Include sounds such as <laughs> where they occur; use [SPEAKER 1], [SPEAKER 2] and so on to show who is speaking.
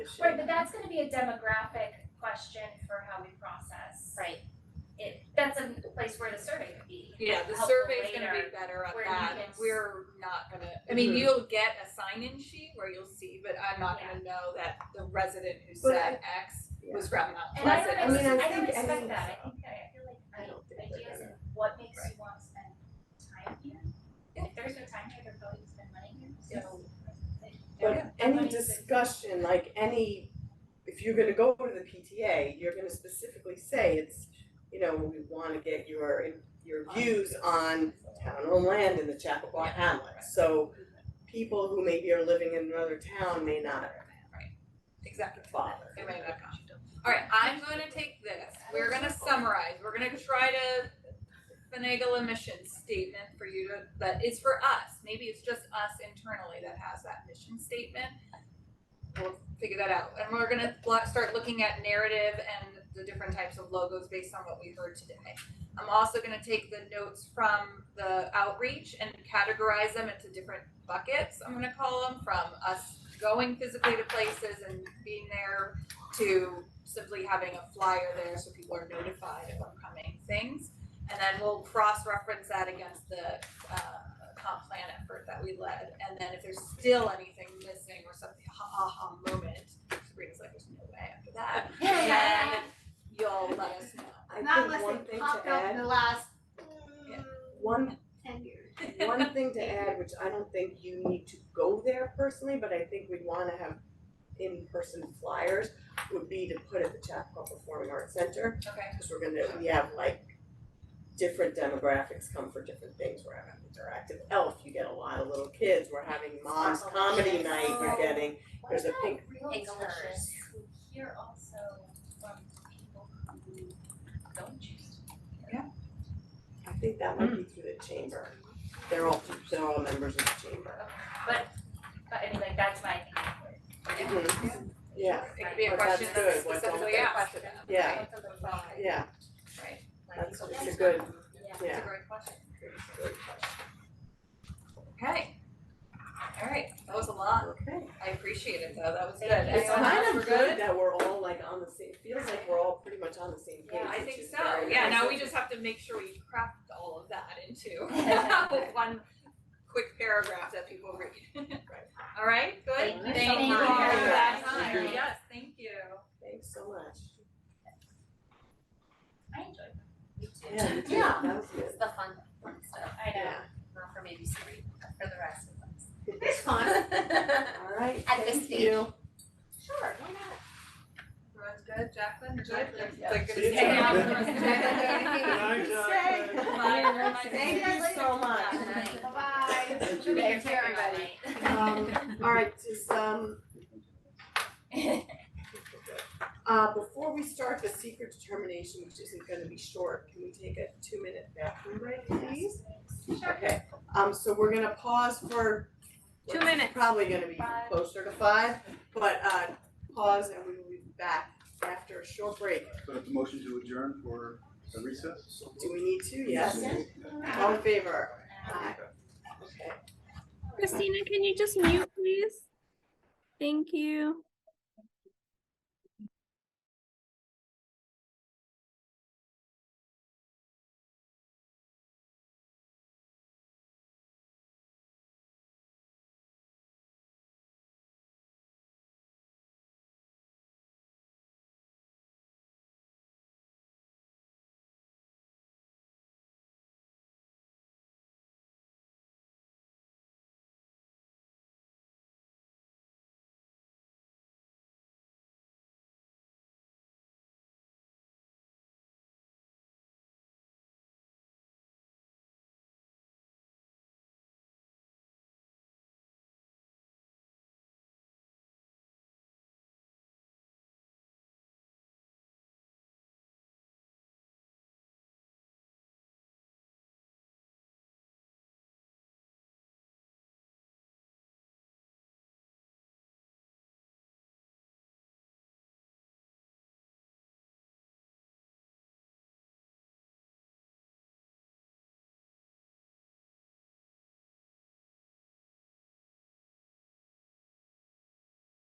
[SPEAKER 1] Right, but that's gonna be a demographic question for how we process.
[SPEAKER 2] Right.
[SPEAKER 1] It, that's a place where the survey could be.
[SPEAKER 3] Yeah, the
[SPEAKER 1] helpful
[SPEAKER 3] survey's gonna
[SPEAKER 1] later,
[SPEAKER 3] be better at
[SPEAKER 1] where you
[SPEAKER 3] that,
[SPEAKER 1] can s-
[SPEAKER 3] we're not gonna, I mean,
[SPEAKER 4] Mhm.
[SPEAKER 3] you'll get a sign-in sheet where you'll see, but I'm not gonna know that the resident who
[SPEAKER 4] But
[SPEAKER 3] said X was from Mount
[SPEAKER 1] And I
[SPEAKER 3] Pleasant.
[SPEAKER 1] don't,
[SPEAKER 4] I mean, I
[SPEAKER 1] ex- I
[SPEAKER 4] think-
[SPEAKER 1] don't
[SPEAKER 4] I
[SPEAKER 1] expect
[SPEAKER 4] think
[SPEAKER 1] that, I
[SPEAKER 4] so.
[SPEAKER 1] think that, I feel
[SPEAKER 4] I
[SPEAKER 1] like
[SPEAKER 4] don't
[SPEAKER 1] the
[SPEAKER 4] think we're
[SPEAKER 1] idea is
[SPEAKER 4] gonna-
[SPEAKER 1] what makes you want to spend time here? If there's no time here, they're probably gonna spend money here, so.
[SPEAKER 4] But any discussion, like any, if you're gonna go to the PTA, you're gonna specifically say it's, you know, we wanna get your, your views on town owned land in the Chappaqua Hamlet. So people who maybe are living in another town may not
[SPEAKER 3] Exactly.
[SPEAKER 4] bother.
[SPEAKER 3] It may not come. Alright, I'm gonna take this, we're gonna summarize, we're gonna try to finagle a mission statement for you to, that is for us, maybe it's just us internally that has that mission statement. We'll figure that out, and we're gonna lo- start looking at narrative and the different types of logos based on what we heard today. I'm also gonna take the notes from the outreach and categorize them into different buckets, I'm gonna call them, from us going physically to places and being there to simply having a flyer there so people are notified of upcoming things. And then we'll cross-reference that against the uh comp plan effort that we led. And then if there's still anything missing or something, ha ha ha moment, Sabrina's like, there's no way after that.
[SPEAKER 4] <laughs>
[SPEAKER 3] Then you'll let us know.
[SPEAKER 4] I think one thing to add,
[SPEAKER 5] the last mm,
[SPEAKER 3] Yeah.
[SPEAKER 4] one,
[SPEAKER 5] ten years.
[SPEAKER 4] one thing to add, which I don't think you need to go there personally, but I think we wanna have in-person flyers would be to put at the Chappaqua Performing Arts Center.
[SPEAKER 3] Okay.
[SPEAKER 4] Cause we're gonna, we have like different demographics come for different things, we're having interactive elf, you get a lot of little kids, we're having
[SPEAKER 3] Oh,
[SPEAKER 4] mom's comedy night, you're getting, there's a pink,
[SPEAKER 2] Pink
[SPEAKER 1] realtors
[SPEAKER 2] alerts.
[SPEAKER 1] who hear also from people who don't choose to be here?
[SPEAKER 4] I think that might be through the chamber. They're all, they're all members of the chamber.
[SPEAKER 1] But I mean, like, that's my thing.
[SPEAKER 4] Yeah,
[SPEAKER 3] It could be a
[SPEAKER 4] But that's
[SPEAKER 3] question
[SPEAKER 4] good,
[SPEAKER 3] that's
[SPEAKER 4] what's on
[SPEAKER 3] specifically
[SPEAKER 4] there?
[SPEAKER 3] asked to them.
[SPEAKER 4] Yeah.
[SPEAKER 3] right? Right.
[SPEAKER 4] yeah, that's, it's a good,
[SPEAKER 3] It's a
[SPEAKER 4] yeah.
[SPEAKER 3] great question. Okay. All right, that was a lot.
[SPEAKER 4] Okay.
[SPEAKER 3] I appreciate it though, that was good.
[SPEAKER 1] Thank you.
[SPEAKER 4] It's
[SPEAKER 3] Anyone else?
[SPEAKER 4] kind
[SPEAKER 3] We're
[SPEAKER 4] of good that we're all like on the same, it feels like we're all pretty much on the same page,
[SPEAKER 3] Yeah, I
[SPEAKER 4] which
[SPEAKER 3] think
[SPEAKER 4] is
[SPEAKER 3] so,
[SPEAKER 4] very
[SPEAKER 3] yeah,
[SPEAKER 4] nice.
[SPEAKER 3] now we just have to make sure we craft all of that
[SPEAKER 4] <laughs>
[SPEAKER 3] into <laughs> one quick paragraph that people read. All right, good,
[SPEAKER 2] Thank
[SPEAKER 4] you so
[SPEAKER 3] thank you all
[SPEAKER 4] much.
[SPEAKER 3] for that
[SPEAKER 4] Thank
[SPEAKER 3] time,
[SPEAKER 4] you.
[SPEAKER 3] yes, thank you.
[SPEAKER 4] Thanks so much.
[SPEAKER 1] I enjoyed them.
[SPEAKER 2] Me too.
[SPEAKER 4] Yeah, you too.
[SPEAKER 2] Yeah.
[SPEAKER 4] that was good,
[SPEAKER 2] It's the fun, fun stuff,
[SPEAKER 1] I know.
[SPEAKER 4] yeah,
[SPEAKER 2] not for maybe three, but for the rest of us.
[SPEAKER 5] It's fun.
[SPEAKER 2] <laughs>
[SPEAKER 4] all right,
[SPEAKER 2] At this
[SPEAKER 4] thank
[SPEAKER 2] stage.
[SPEAKER 4] you.
[SPEAKER 2] Sure, why not?
[SPEAKER 3] Everyone's good, Jacqueline, good?
[SPEAKER 5] Jacqueline,
[SPEAKER 3] It's like
[SPEAKER 6] See you,
[SPEAKER 3] good to <laughs> see you.
[SPEAKER 1] Jacqueline.
[SPEAKER 6] Night, Jacqueline.
[SPEAKER 3] Bye.
[SPEAKER 5] Thank you so much.
[SPEAKER 2] Bye.
[SPEAKER 5] Bye-bye.
[SPEAKER 6] Thank
[SPEAKER 1] you.
[SPEAKER 5] Take care, everybody.
[SPEAKER 4] Um, all right, just, um, uh, before we start the secret determination, which isn't gonna be short, can we take a two-minute bathroom break, please? Okay, um, so we're gonna pause for
[SPEAKER 2] Two
[SPEAKER 4] what's
[SPEAKER 2] minutes.
[SPEAKER 4] Probably gonna be
[SPEAKER 1] Five.
[SPEAKER 4] closer to five, but, uh, pause and we will be back after a short break.
[SPEAKER 6] Put up a motion to adjourn for a recess?
[SPEAKER 4] Do we need to? Yes. All in favor? Aye. Okay.
[SPEAKER 7] Christina, can you just mute, please? Thank you.